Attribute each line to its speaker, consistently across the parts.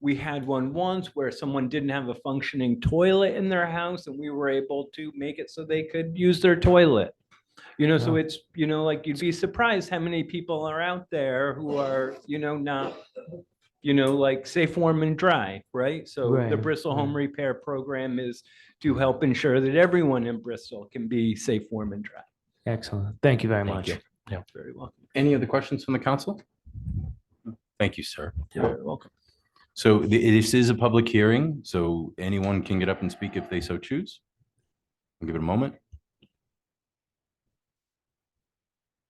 Speaker 1: We had one once where someone didn't have a functioning toilet in their house and we were able to make it so they could use their toilet. You know, so
Speaker 2: Wow.
Speaker 1: it's, you know, like you'd be surprised how many people are out there who are, you know, not, you know, like safe, warm and dry, right? So the
Speaker 2: Right,
Speaker 1: Bristol
Speaker 2: right.
Speaker 1: Home Repair Program is to help ensure that everyone in Bristol can be safe, warm and dry.
Speaker 2: Excellent. Thank you very
Speaker 3: Thank
Speaker 2: much.
Speaker 3: you.
Speaker 1: Very welcome.
Speaker 3: Any other questions from the council? Thank you, sir.
Speaker 1: Very welcome.
Speaker 3: So th- this is a public hearing, so anyone can get up and speak if they so choose. I'll Give it a moment.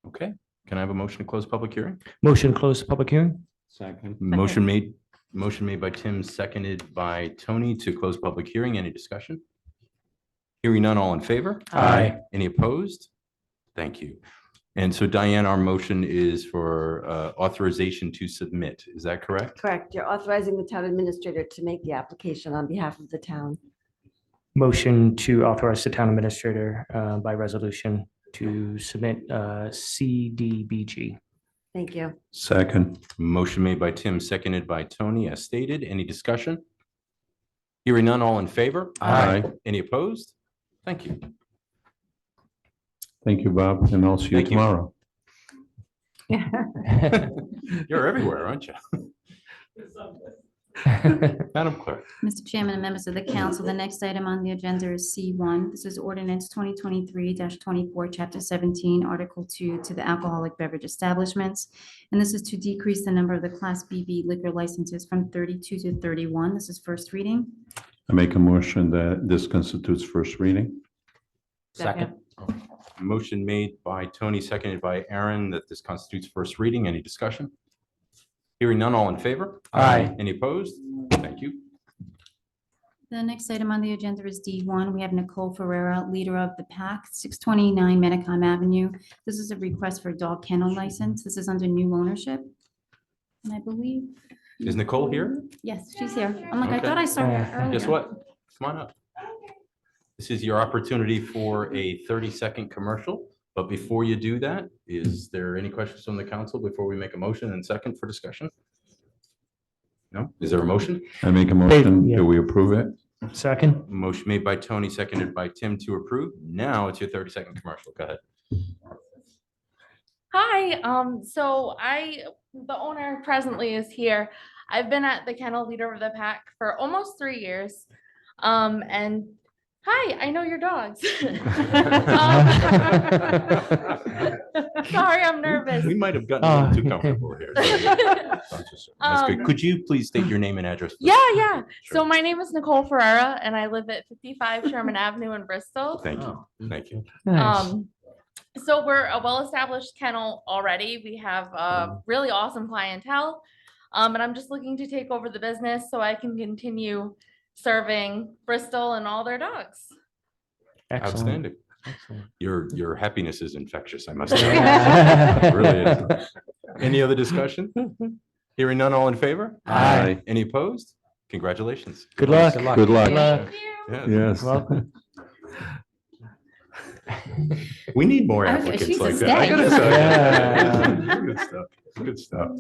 Speaker 3: Okay, can I have a motion to close public hearing?
Speaker 2: Motion to close the public hearing?
Speaker 3: Motion made, motion made by Tim, seconded by Tony to close public hearing. Any discussion? Hearing none, all in favor?
Speaker 2: Aye.
Speaker 3: Any opposed? Thank you. And so Diane, our motion is for uh, authorization to submit. Is that correct?
Speaker 4: Correct. You're authorizing the town administrator to make the application on behalf of the town.
Speaker 2: Motion to authorize the town administrator uh, by resolution to submit uh, CDBG.
Speaker 4: Thank you.
Speaker 3: Second. Motion made by Tim, seconded by Tony, as stated. Any discussion? Hearing none, all in favor?
Speaker 2: Aye.
Speaker 3: Any opposed? Thank you.
Speaker 5: Thank you, Bob, and I'll see you
Speaker 3: Thank you.
Speaker 5: tomorrow.
Speaker 3: You're everywhere, aren't you? Madam Clerk.
Speaker 6: Mr. Chairman and members of the council, the next item on the agenda is C1. This is ordinance 2023-24, Chapter 17, Article 2, to the alcoholic beverage establishments. And this is to decrease the number of the Class BB liquor licenses from 32 to 31. This is first reading.
Speaker 5: I make a motion that this constitutes first reading.
Speaker 4: Second.
Speaker 3: Motion made by Tony, seconded by Aaron, that this constitutes first reading. Any discussion? Hearing none, all in favor?
Speaker 2: Aye.
Speaker 3: Any opposed? Thank you.
Speaker 6: The next item on the agenda is D1. We have Nicole Ferrera, leader of the pack, 629 Medicom Avenue. This is a request for dog kennel license. This is under new ownership. And I believe,
Speaker 3: Is Nicole here?
Speaker 6: yes, she's here. I'm like, I
Speaker 3: Okay.
Speaker 6: thought I saw her
Speaker 2: Yeah.
Speaker 6: earlier.
Speaker 3: Uh, Guess what? Come on up. This is your opportunity for a 30-second commercial, but before you do that, is there any questions from the council before we make a motion and second for discussion? No? Is there a motion?
Speaker 5: I make a motion
Speaker 2: yeah.
Speaker 5: that we approve it.
Speaker 2: Second?
Speaker 3: Motion made by Tony, seconded by Tim to approve. Now it's your 30-second commercial. Go ahead.
Speaker 7: Hi, um, so I, the owner presently is here. I've been at the kennel leader of the pack for almost three years. Um, and hi, I know your dogs. Um, Sorry, I'm nervous.
Speaker 3: We might have gotten a little too
Speaker 2: Ah.
Speaker 3: comfortable here. That's good.
Speaker 7: Um,
Speaker 3: Could you please state your name and address? for the
Speaker 7: Yeah,
Speaker 3: record?
Speaker 7: yeah. So
Speaker 3: Sure.
Speaker 7: my name is Nicole Ferrera and I live at fifty-five Sherman Avenue in Bristol.
Speaker 3: Thank you.
Speaker 2: Oh,
Speaker 3: Thank you.
Speaker 2: Nice.
Speaker 7: Um, so we're a well-established kennel already. We have a really awesome clientele. Um, and I'm just looking to take over the business so I can continue serving Bristol and all their dogs.
Speaker 2: Excellent.
Speaker 3: Outstanding.
Speaker 2: Excellent.
Speaker 3: Your, your happiness is infectious, I must say. It Really is. Any other discussion? Hearing none, all in favor?
Speaker 2: Aye.
Speaker 3: Any opposed? Congratulations.
Speaker 2: Good luck.
Speaker 5: Good luck.
Speaker 2: luck.
Speaker 3: Yeah.
Speaker 5: Yes.
Speaker 2: Welcome.
Speaker 3: We need more
Speaker 6: I was-
Speaker 3: applicants
Speaker 6: she's a
Speaker 3: like that. I gotta
Speaker 2: stag.
Speaker 3: say. Good stuff. Good stuff.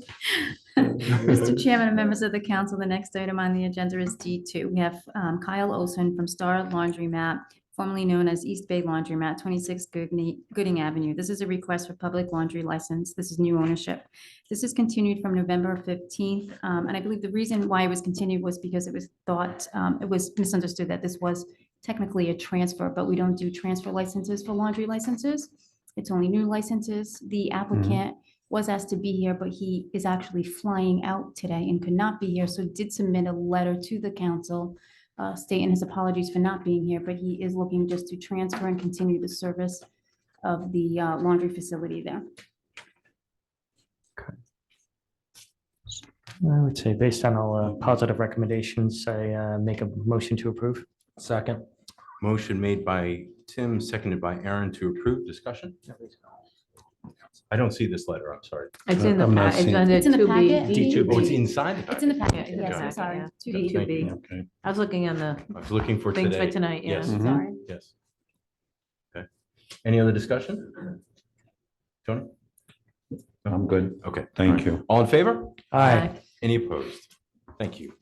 Speaker 6: Mr. Chairman and members of the council, the next item on the agenda is D2. We have um, Kyle Olson from Star Laundromat, formerly known as East Bay Laundromat, 26 Goodney- Gooding Avenue. This is a request for public laundry license. This is new ownership. This is continued from November 15th. um, And I believe the reason why it was continued was because it was thought, um, it was misunderstood that this was technically a transfer, but we don't do transfer licenses for laundry licenses. It's only new licenses. The applicant was asked to be here, but he is actually flying out today and could not be here, so did submit a letter to the council uh, stating his apologies for not being here, but he is looking just to transfer and continue the service of the uh, laundry facility there.
Speaker 2: I would say based on all uh, positive recommendations, I uh, make a motion to approve. Second.
Speaker 3: Motion made by Tim, seconded by Aaron to approve. Discussion? I don't see this letter. I'm sorry.
Speaker 8: It's in the,
Speaker 5: I'm not
Speaker 8: pa- it's
Speaker 5: seeing-
Speaker 8: under
Speaker 6: It's in the
Speaker 8: two
Speaker 6: packet.
Speaker 8: B.
Speaker 2: D2B.
Speaker 3: Oh, it's inside. the
Speaker 6: It's in the
Speaker 3: package.
Speaker 6: packet, yes, I'm sorry.
Speaker 8: Yeah.
Speaker 6: Two
Speaker 8: D
Speaker 6: D.
Speaker 8: two
Speaker 3: Thank
Speaker 8: B.
Speaker 5: Okay.
Speaker 8: I was looking on the
Speaker 3: I was looking for
Speaker 8: things for
Speaker 3: today.
Speaker 8: tonight, yeah.
Speaker 3: Yes.
Speaker 5: Mhm.
Speaker 8: Sorry.
Speaker 3: Yes. Okay. Any other discussion? Tony?
Speaker 5: I'm good.
Speaker 3: Okay.
Speaker 5: Thank you.
Speaker 3: All in favor?
Speaker 2: Aye.
Speaker 3: Any opposed? Thank you.